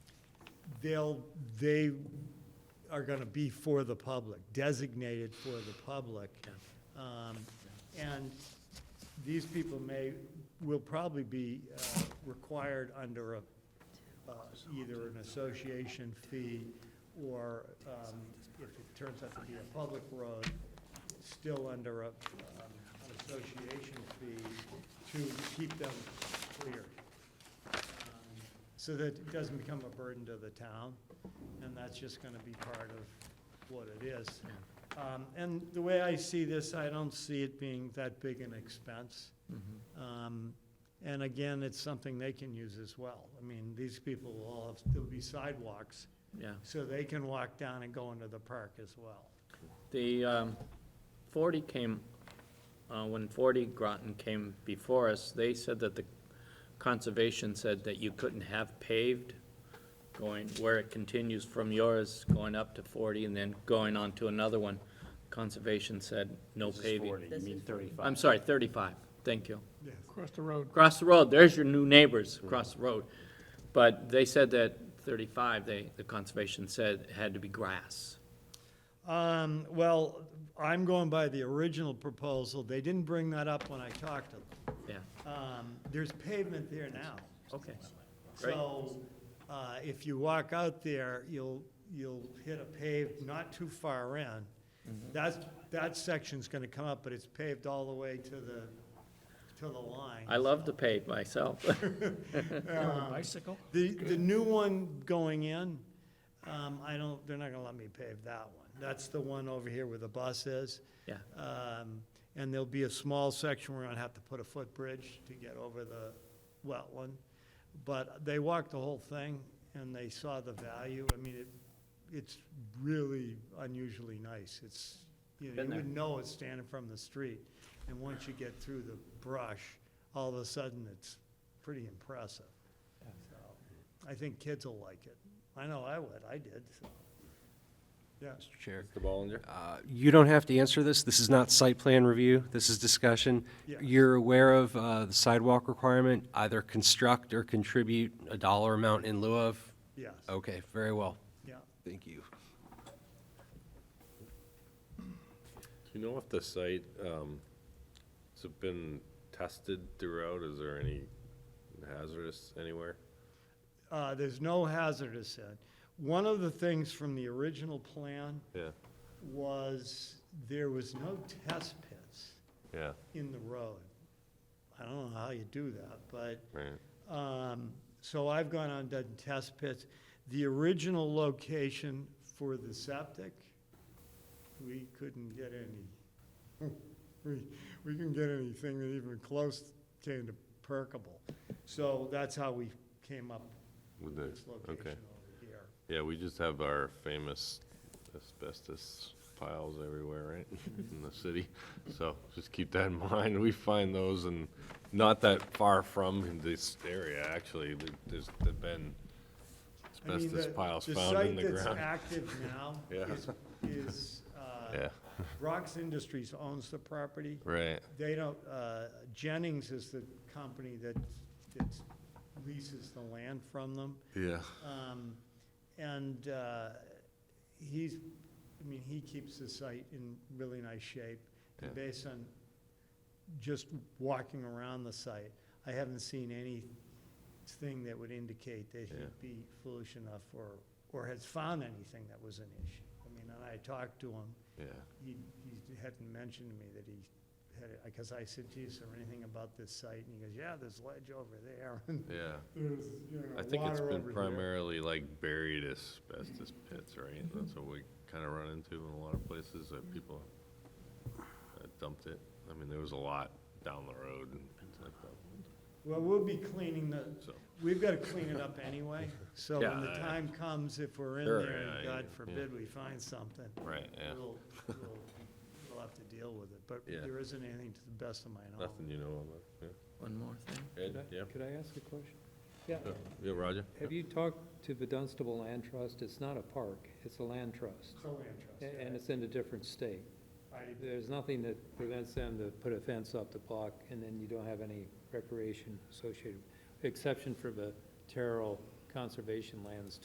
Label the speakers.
Speaker 1: they'll, they are gonna be for the public, designated for the public. Um, And these people may, will probably be uh, required under a, uh, either an association fee or, um, if it turns out to be a public road, still under a, um, an association fee to keep them clear so that it doesn't become a burden to the town, and that's just gonna be part of what it is. Um, and the way I see this, I don't see it being that big an expense.
Speaker 2: Mm-hmm,
Speaker 1: Um, and again, it's something they can use as well. I mean, these people will all have, there'll be sidewalks,
Speaker 2: Yeah,
Speaker 1: so they can walk down and go into the park as well.
Speaker 2: the um, 40 came, uh, when 40 Groton came before us, they said that the conservation said that you couldn't have paved going, where it continues from yours, going up to 40 and then going on to another one. Conservation said no
Speaker 3: This is
Speaker 2: paving.
Speaker 3: 40, you mean 35.
Speaker 2: I'm sorry, 35, thank you.
Speaker 1: Yes.
Speaker 4: Across the road.
Speaker 2: Across the road, there's your new neighbors
Speaker 3: Mm-hmm.
Speaker 2: across the road. But they said that 35, they, the conservation said it had to be grass.
Speaker 1: Um, well, I'm going by the original proposal. They didn't bring that up when I talked to them.
Speaker 2: Yeah,
Speaker 1: Um, there's pavement there now.
Speaker 2: okay. Great.
Speaker 1: So, uh, if you walk out there, you'll, you'll hit a paved, not too far in.
Speaker 2: Mm-hmm.
Speaker 1: That's, that section's gonna come up, but it's paved all the way to the, to the line.
Speaker 2: I love to pave myself.
Speaker 4: Bicycle?
Speaker 1: The, the new one going in, um, I don't, they're not gonna let me pave that one. That's the one over here where the bus is.
Speaker 2: Yeah.
Speaker 1: Um, and there'll be a small section where I'll have to put a footbridge to get over the wetland. But they walked the whole thing and they saw the value. I mean, it, it's really unusually nice. It's, you know,
Speaker 2: Been
Speaker 1: you
Speaker 2: there.
Speaker 1: wouldn't know it's standing from the street. And once you get through the brush, all of a sudden, it's pretty impressive. So, I think kids will like it. I know I would, I did, so. Yeah.
Speaker 5: Mr. Chair.
Speaker 3: Mr. Bollinger?
Speaker 5: Uh, You don't have to answer this. This is not site plan review. This is discussion.
Speaker 1: Yeah.
Speaker 5: You're aware of uh, the sidewalk requirement, either construct or contribute a dollar amount in lieu of?
Speaker 1: Yes,
Speaker 5: Okay, very well.
Speaker 1: yeah.
Speaker 5: Thank you.
Speaker 6: Do you know if the site, um, has it been tested throughout? Is there any hazardous anywhere?
Speaker 1: Uh, there's no hazardous in. One of the things from the original plan
Speaker 6: Yeah,
Speaker 1: was there was no test pits
Speaker 6: yeah,
Speaker 1: in the road. I don't know how you do that, but
Speaker 6: right.
Speaker 1: Um, So I've gone on done test pits. The original location for the septic, we couldn't get any. We, we couldn't get anything that even close came to percolable. So that's how we came up
Speaker 6: With
Speaker 1: with this
Speaker 6: the,
Speaker 1: location
Speaker 6: okay.
Speaker 1: over here.
Speaker 6: Yeah, we just have our famous asbestos piles everywhere, right, in the city. So just keep that in mind. We find those and not that far from this area, actually. There- There's there've been
Speaker 1: I mean,
Speaker 6: asbestos
Speaker 1: the-
Speaker 6: piles found in the
Speaker 1: The site that's
Speaker 6: ground.
Speaker 1: active now
Speaker 6: Yeah.
Speaker 1: is, is, uh,
Speaker 6: Yeah,
Speaker 1: Rox Industries owns the property.
Speaker 6: right,
Speaker 1: They don't, uh, Jennings is the company that, that leases the land from them.
Speaker 6: yeah.
Speaker 1: Um, and, uh, he's, I mean, he keeps the site in really nice shape. And
Speaker 6: Yeah.
Speaker 1: Based on just walking around the site, I haven't seen anything that would indicate that
Speaker 6: Yeah.
Speaker 1: he'd be foolish enough or, or has found anything that was an issue. I mean, and I talked to him,
Speaker 6: Yeah,
Speaker 1: he, he hadn't mentioned to me that he had, because I said, geez, is there anything about this site? And he goes, yeah, there's ledge over there, and
Speaker 6: yeah.
Speaker 1: there's, you
Speaker 6: I
Speaker 1: know,
Speaker 6: think it's
Speaker 1: water
Speaker 6: been
Speaker 1: over here.
Speaker 6: primarily like buried asbestos pits, right?
Speaker 1: Mm-hmm.
Speaker 6: That's what we kind of run into in a lot of places that people uh, dumped it. I mean, there was a lot down the road and things like that,
Speaker 1: Well, we'll be cleaning the,
Speaker 6: so.
Speaker 1: we've gotta clean it up anyway, so when the
Speaker 6: Yeah.
Speaker 1: time comes, if we're in
Speaker 6: Sure,
Speaker 1: there, and
Speaker 6: yeah,
Speaker 1: God
Speaker 6: yeah.
Speaker 1: forbid we find something,
Speaker 6: Right, yeah.
Speaker 1: we'll, we'll, we'll have to deal with it, but
Speaker 6: Yeah.
Speaker 1: there isn't anything to the best of my knowledge.
Speaker 6: Nothing you know about,
Speaker 2: One more thing.
Speaker 6: yeah. Ed, yeah?
Speaker 7: Could I ask a question? Yeah.
Speaker 6: Yeah, Yeah, Roger?
Speaker 7: Have you talked to the Dunstable Land Trust? It's not a park, it's a land trust,
Speaker 1: It's a land
Speaker 7: a-
Speaker 1: trust,
Speaker 7: and it's in a different state.
Speaker 1: yeah. I-
Speaker 7: There's nothing that prevents them to put a fence up the block, and then you don't have any recreation associated, exception for the Terrell Conservation Lands